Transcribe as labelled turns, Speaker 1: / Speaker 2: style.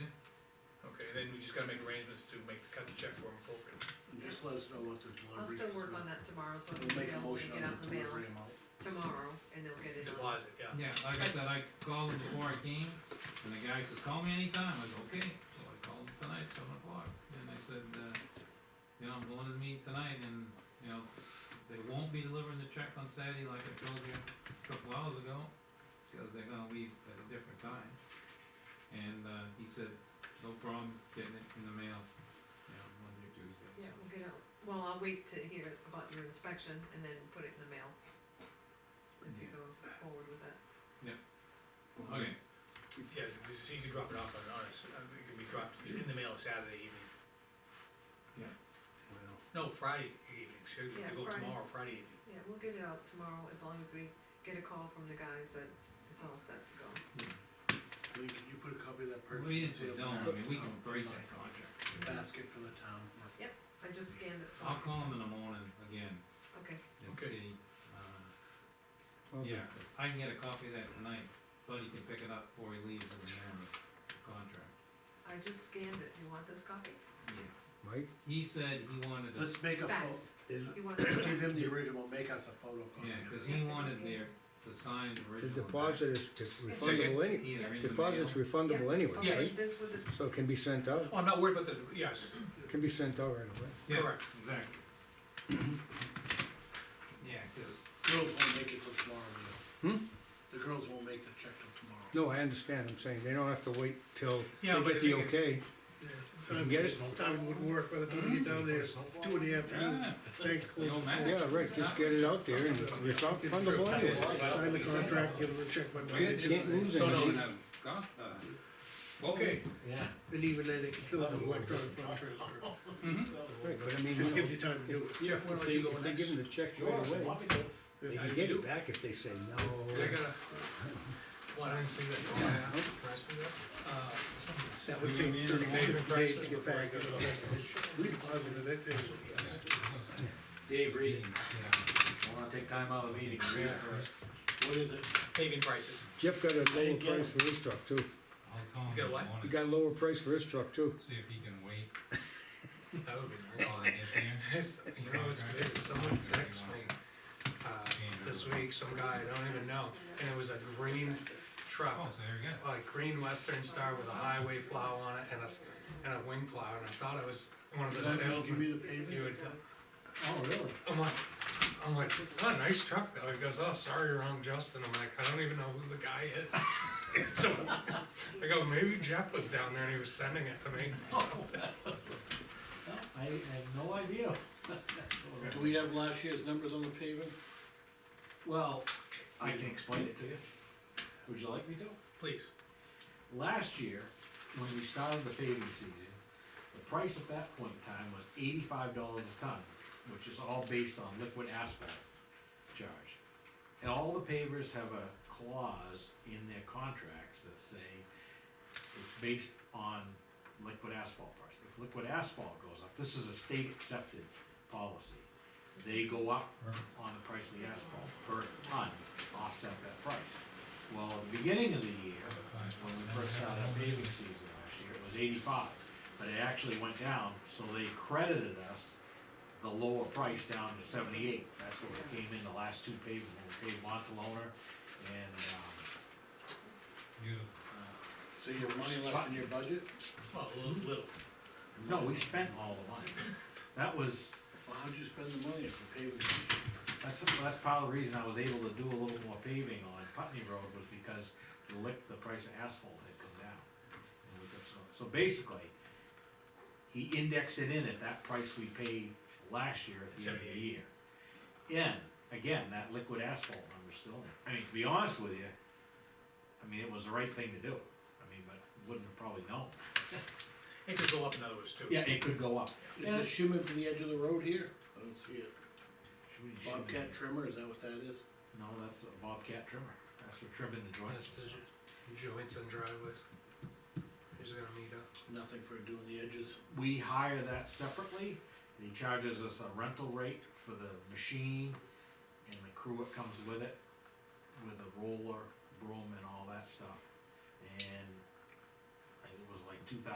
Speaker 1: then we just gotta make arrangements to make, cut the check for them appropriate.
Speaker 2: And just let us know what the delivery.
Speaker 3: I'll still work on that tomorrow, so it'll
Speaker 2: We'll make
Speaker 3: be
Speaker 2: a
Speaker 3: available to
Speaker 2: motion on
Speaker 3: get out
Speaker 2: the
Speaker 3: in the mail
Speaker 2: delivery amount.
Speaker 3: tomorrow, and they'll get it out.
Speaker 1: Deposit, yeah.
Speaker 4: Yeah, like I said, I called him before I came, and the guy says, call me anytime, I go, okay, so I called him tonight, seven o'clock, and I said, uh, you know, I'm going to the meet tonight, and, you know, they won't be delivering the check on Saturday like I told you a couple hours ago, because they're gonna leave at a different time. And, uh, he said, no problem getting it in the mail, you know, Monday, or Tuesday,
Speaker 3: Yeah,
Speaker 4: so.
Speaker 3: we'll get out, well, I'll wait to hear about your inspection and then put it in the mail. If you
Speaker 4: Yeah.
Speaker 3: go forward with that.
Speaker 4: Okay,
Speaker 1: Yeah, this is- you can drop it off on, on, a s- uh, it can be dropped in the mail Saturday evening.
Speaker 2: Well,
Speaker 1: No, Friday evening, so you
Speaker 3: Yeah,
Speaker 1: can go
Speaker 3: Friday.
Speaker 1: tomorrow, Friday evening.
Speaker 3: Yeah, we'll get it out tomorrow, as long as we get a call from the guys that it's, it's all set to go.
Speaker 2: Lee, can you put a copy of that purchase?
Speaker 4: we just
Speaker 2: and sales
Speaker 4: don't, I
Speaker 2: order
Speaker 4: mean, we
Speaker 2: on-
Speaker 4: can embrace
Speaker 2: on
Speaker 4: that contract.
Speaker 2: the Basket for the town.
Speaker 3: I just scanned it, so,
Speaker 4: I'll call him in the morning again,
Speaker 3: okay,
Speaker 4: and
Speaker 1: Okay.
Speaker 4: see, uh, yeah, I can get a copy of that tonight, Buddy can pick it up before he leaves in the morning, contract.
Speaker 3: I just scanned it, you want this copy?
Speaker 5: Mike,
Speaker 4: He said he wanted to,
Speaker 2: Let's make a photo,
Speaker 3: Fax,
Speaker 5: is,
Speaker 3: you want
Speaker 2: give
Speaker 3: it?
Speaker 2: him the original, make us a photocopy.
Speaker 4: yeah,
Speaker 2: of it.
Speaker 4: cause he wanted their, the signed
Speaker 5: the
Speaker 4: original. back,
Speaker 5: deposit is refundable any,
Speaker 4: Either in the
Speaker 5: deposit's
Speaker 4: mail,
Speaker 5: refundable anyway,
Speaker 3: Okay,
Speaker 5: right?
Speaker 3: this with the,
Speaker 5: So it can be sent out,
Speaker 1: Oh, I'm not worried about the, yes,
Speaker 5: can be sent out right away.
Speaker 4: Yeah,
Speaker 1: correct.
Speaker 4: exactly. Yeah, cause
Speaker 2: Girls won't make it till tomorrow, you know.
Speaker 5: Hmm?
Speaker 2: The girls won't make the check till tomorrow.
Speaker 5: No, I understand, I'm saying, they don't have to wait till
Speaker 1: Yeah,
Speaker 5: they
Speaker 1: but
Speaker 5: get
Speaker 1: the
Speaker 5: the
Speaker 1: thing is-
Speaker 5: okay.
Speaker 6: Time
Speaker 5: Get
Speaker 6: would-
Speaker 5: it?
Speaker 6: Time would work by the time you get down there, it's two in the afternoon,
Speaker 4: Yeah,
Speaker 6: banks
Speaker 4: it
Speaker 6: closed.
Speaker 4: ah, don't matter.
Speaker 5: Yeah, right, just get it out there and it's refundable anyway.
Speaker 6: Sign the contract, give them the check by
Speaker 4: We
Speaker 6: Monday.
Speaker 5: Can't lose
Speaker 4: So no,
Speaker 5: anything.
Speaker 4: no, cost, uh, okay.
Speaker 2: Yeah.
Speaker 6: And even then, they can still have an electronic fund transfer.
Speaker 5: Right, but I
Speaker 6: Just
Speaker 5: mean, you know,
Speaker 6: gives you time to do it.
Speaker 1: Yeah, if we
Speaker 5: if
Speaker 1: let
Speaker 5: they,
Speaker 1: you go
Speaker 5: if they
Speaker 1: next.
Speaker 5: give them the check right away, they
Speaker 1: Yeah, you
Speaker 5: can get
Speaker 1: do.
Speaker 5: it back if they say
Speaker 1: I
Speaker 5: no.
Speaker 1: gotta. What, I didn't see that. Oh, Can I see that? Uh, this one is-
Speaker 6: That would take thirty days
Speaker 1: Yeah.
Speaker 6: days to get back. We deposited it, and
Speaker 7: Dave Reading. I wanna take time out of the meeting, to read it first.
Speaker 2: What is it?
Speaker 1: Paving prices,
Speaker 5: Jeff got a lower
Speaker 2: didn't get
Speaker 5: price for his truck too,
Speaker 8: I'll call
Speaker 1: You
Speaker 8: him
Speaker 1: got
Speaker 8: in the
Speaker 1: what?
Speaker 5: he
Speaker 8: morning,
Speaker 5: got a lower price for his truck too.
Speaker 8: see if he can wait
Speaker 1: that would be nice.
Speaker 8: while I get there.
Speaker 9: It's, you know, it's, it's someone texted me, uh, this week, some guy, I don't even know, and it was a green
Speaker 8: Oh,
Speaker 9: truck,
Speaker 8: so there you go.
Speaker 9: like green western star with a highway plow on it and a, s- and a wing plow, and I thought it was one of the
Speaker 2: Give
Speaker 9: salesmen.
Speaker 2: me the pavement?
Speaker 9: You would,
Speaker 2: Oh, really?
Speaker 9: I'm like, I'm like, what a nice truck though, he goes, oh, sorry, you're wrong, Justin, I'm like, I don't even know who the guy is. So, I go, maybe Jeff was down there and he was sending it to me.
Speaker 7: I have no idea.
Speaker 2: Do we have last year's numbers on the pavement?
Speaker 7: Well, I can explain it to you. Would you like me to?
Speaker 1: please.
Speaker 7: Last year, when we started the paving season, the price at that point in time was eighty-five dollars a ton, which is all based on liquid asphalt charge. And all the pavers have a clause in their contracts that say it's based on liquid asphalt price. If liquid asphalt goes up, this is a state accepted policy, they go up on the price of the asphalt per ton, offset that price. Well, at the beginning of the year, when we first started our paving season last year, it was eighty-five, but it actually went down, so they credited us the lower price down to seventy-eight, that's what we came in the last two paving, we paid Montalona and, um,
Speaker 8: Beautiful.
Speaker 2: So you have money left in your budget?
Speaker 1: Well, a little, little.
Speaker 7: no, we spent all the money. That was,
Speaker 2: Well, how'd you spend the money if the pavement?
Speaker 7: That's, that's part of the reason I was able to do a little more paving on Putney Road was because the lick, the price of asphalt had come down. And we could- so- So basically, he indexed it in at that price we paid last year at the end of the year. And, again, that liquid asphalt number's still in. I mean, to be honest with you, I mean, it was the right thing to do. I mean, but wouldn't have probably known.
Speaker 1: It could go up in others too.
Speaker 7: Yeah, it could go up.
Speaker 2: Is the shim in for the edge of the road here? I don't see it.
Speaker 7: Should we- should we-
Speaker 2: Bobcat trimmer, is that what that is?
Speaker 7: No, that's a Bobcat trimmer. That's for trimming the
Speaker 9: That's
Speaker 7: joints.
Speaker 9: the joints and driveways. He's gonna meet up.
Speaker 2: Nothing for doing the edges.
Speaker 7: We hire that separately, he charges us a rental rate for the machine and the crew that comes with it, with a roller, broom and all that stuff. And